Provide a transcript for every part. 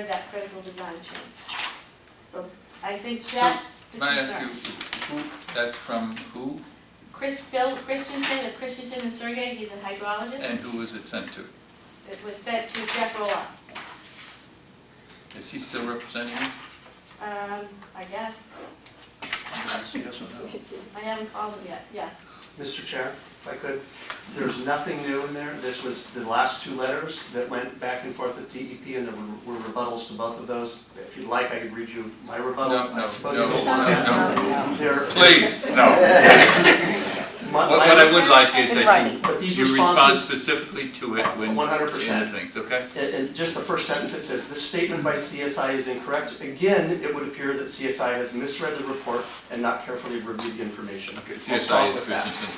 that critical design change. So I think So, that's the May I ask you, concern. who, that's from who Chris Phil Christensen of Christensen and Sergey, he's a hydrologist. and who was it sent to? It was sent to Jeff Ross. Is he still representing you? Um, I guess, Yes or no? I haven't called him yet, yes. Mr. Chair, if I could, there's nothing new in there. This was the last two letters that went back and forth with DEP, and there were rebuttals to both of those. If you'd like, I could read you my rebuttal. No, I no, suppose no, you don't want that. no, no. They're- Please, no. my- What what I my- would like is that But you, these you respond responses, specifically to it when, One hundred in the percent. things, okay? and and just the first sentence, it says, "This statement by CSI is incorrect." Again, it would appear that CSI has misread the report and not carefully reviewed the information. Okay, We'll CSI stop is with that. Christensen.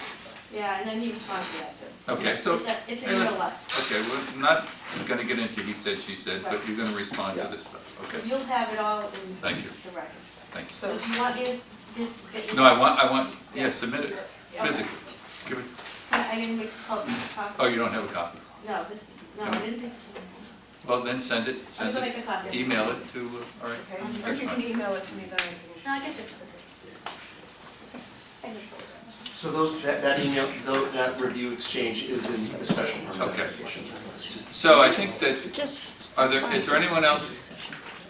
Yeah, and then he responds to that too. Okay, so, It's a, it's a Hey, listen. real lot. okay, we're not gonna get into he said, she said, but you're gonna respond to this stuff, So okay? you'll have it all in the Thank you, record. thank you. So do you want me to, s- get- get your- No, I want, I want, yeah, submit it, Okay. physically. Give it, Can I didn't make a call, copy. oh, you don't have a copy? No, this is, no, I didn't think. Well, then send it, I'm send gonna it, make a copy. email it to, uh, all right. Okay, or that's if you fine. can email it to me, then I No, I get you. So those, that, that email, tho- that review exchange is in the special permit Okay. application. So I think that, Just. are there, is there anyone else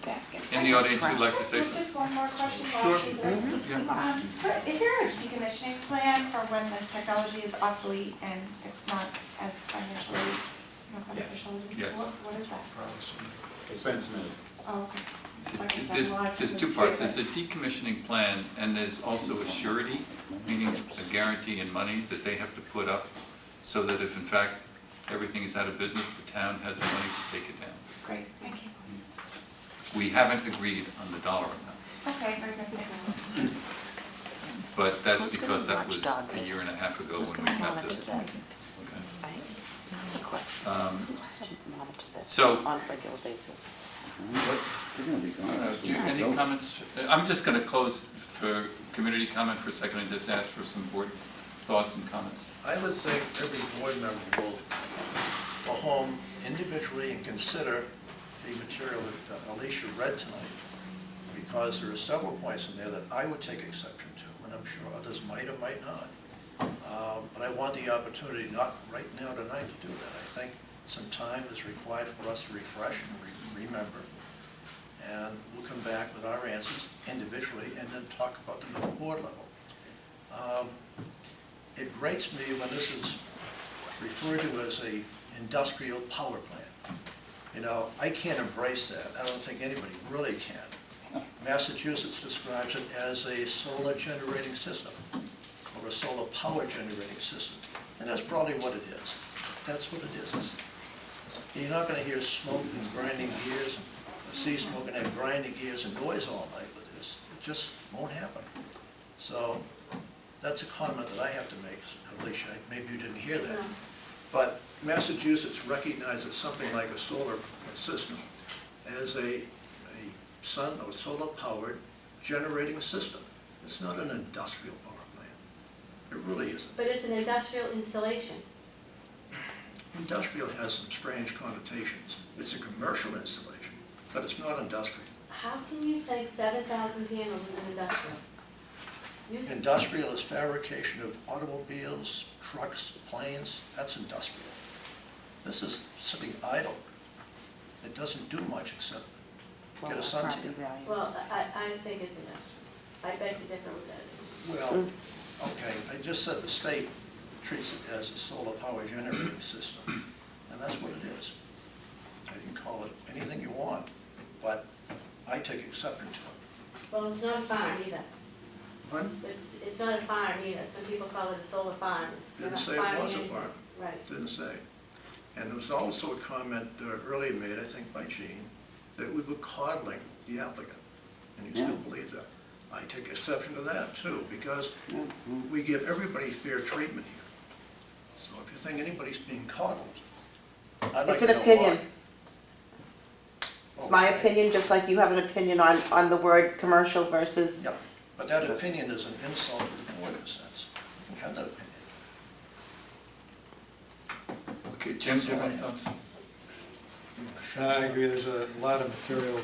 back in? in the audience who'd like to say Just something? just one more question while Sure. Mm-hmm. she's there. Yeah. Um, for- Is there a decommissioning plan for when this technology is obsolete and it's not as financially you know, beneficial? Is- Yes. what- What is that? It's been submitted. Oh, okay. Like I said, There's, lots there's of two parts, there's a improvements. decommissioning plan, and there's also a surety, meaning a guarantee in money that they have to put up, so that if in fact everything is out of business, the town has the money to take it down. Great, thank you. We haven't agreed on the dollar amount, Okay, very good, thanks. but that's Who's gonna because that was watchdog a year this? and a half ago Who's when we gonna got the, monitor that, okay. right? That's the question. Um, Who's gonna monitor this? So- On a regular basis. You're gonna be Uh, gone. do you- Any comments? Uh, I'm just going to close for community comment for a second and just ask for some board thoughts and comments. I would think every board member will go home individually and consider the material that uh, Alicia read tonight, because there are several points in there that I would take exception to, and I'm sure others might or might not. Um, But I want the opportunity, not right now tonight, to do that. I think some time is required for us to refresh and re- remember, and we'll come back with our answers individually, and then talk about them at the board level. Um, it grates me when this is referred to as a industrial power plant. You know, I can't embrace that. I don't think anybody really can. Massachusetts describes it as a solar generating system or a solar power generating system. And that's probably what it is. That's what it is. It's- You're not going to hear smoke and grinding gears, see smoke and have grinding gears and noise all night with this. It just won't happen. So that's a comment that I have to make, Alicia, maybe you didn't hear that. But Massachusetts recognizes something like a solar system as a, a sun or solar-powered generating system. It's not an industrial power plant. It really isn't. But it's an industrial installation. Industrial has some strange connotations. It's a commercial installation, but it's not industrial. How can you think seven thousand panels is industrial? You s- Industrial is fabrication of automobiles, trucks, planes, that's industrial. This is sitting idle. It doesn't do much except Well, get a our sun property tan. values. Well, I, I think it's industrial. I beg to differ with that. Well, okay, I just said the state treats it as a solar power generating system, and that's what it is. You can call it anything you want, but I take exception to Well, it's not a barn either. it. Pardon? It's, it's not a barn either. Some people call it a solar farm. It's Didn't not say it farming was a anything. farm. Right. Didn't say. And there was also a comment uh, earlier made, I think by Gene, that we were coddling the applicant, and you still Yeah. believe that. I take exception to that too, because mm-hmm. we give everybody fair treatment here. So if you think anybody's being coddled, I'd like It's to an know why. opinion. It's my Okay. opinion, just like you have an opinion on, on the word commercial versus, Yeah, but that opinion is an insult to the board in a sense. You have that opinion. Okay, Jim, do you have any thoughts? you want to share? I agree, there's a lot of material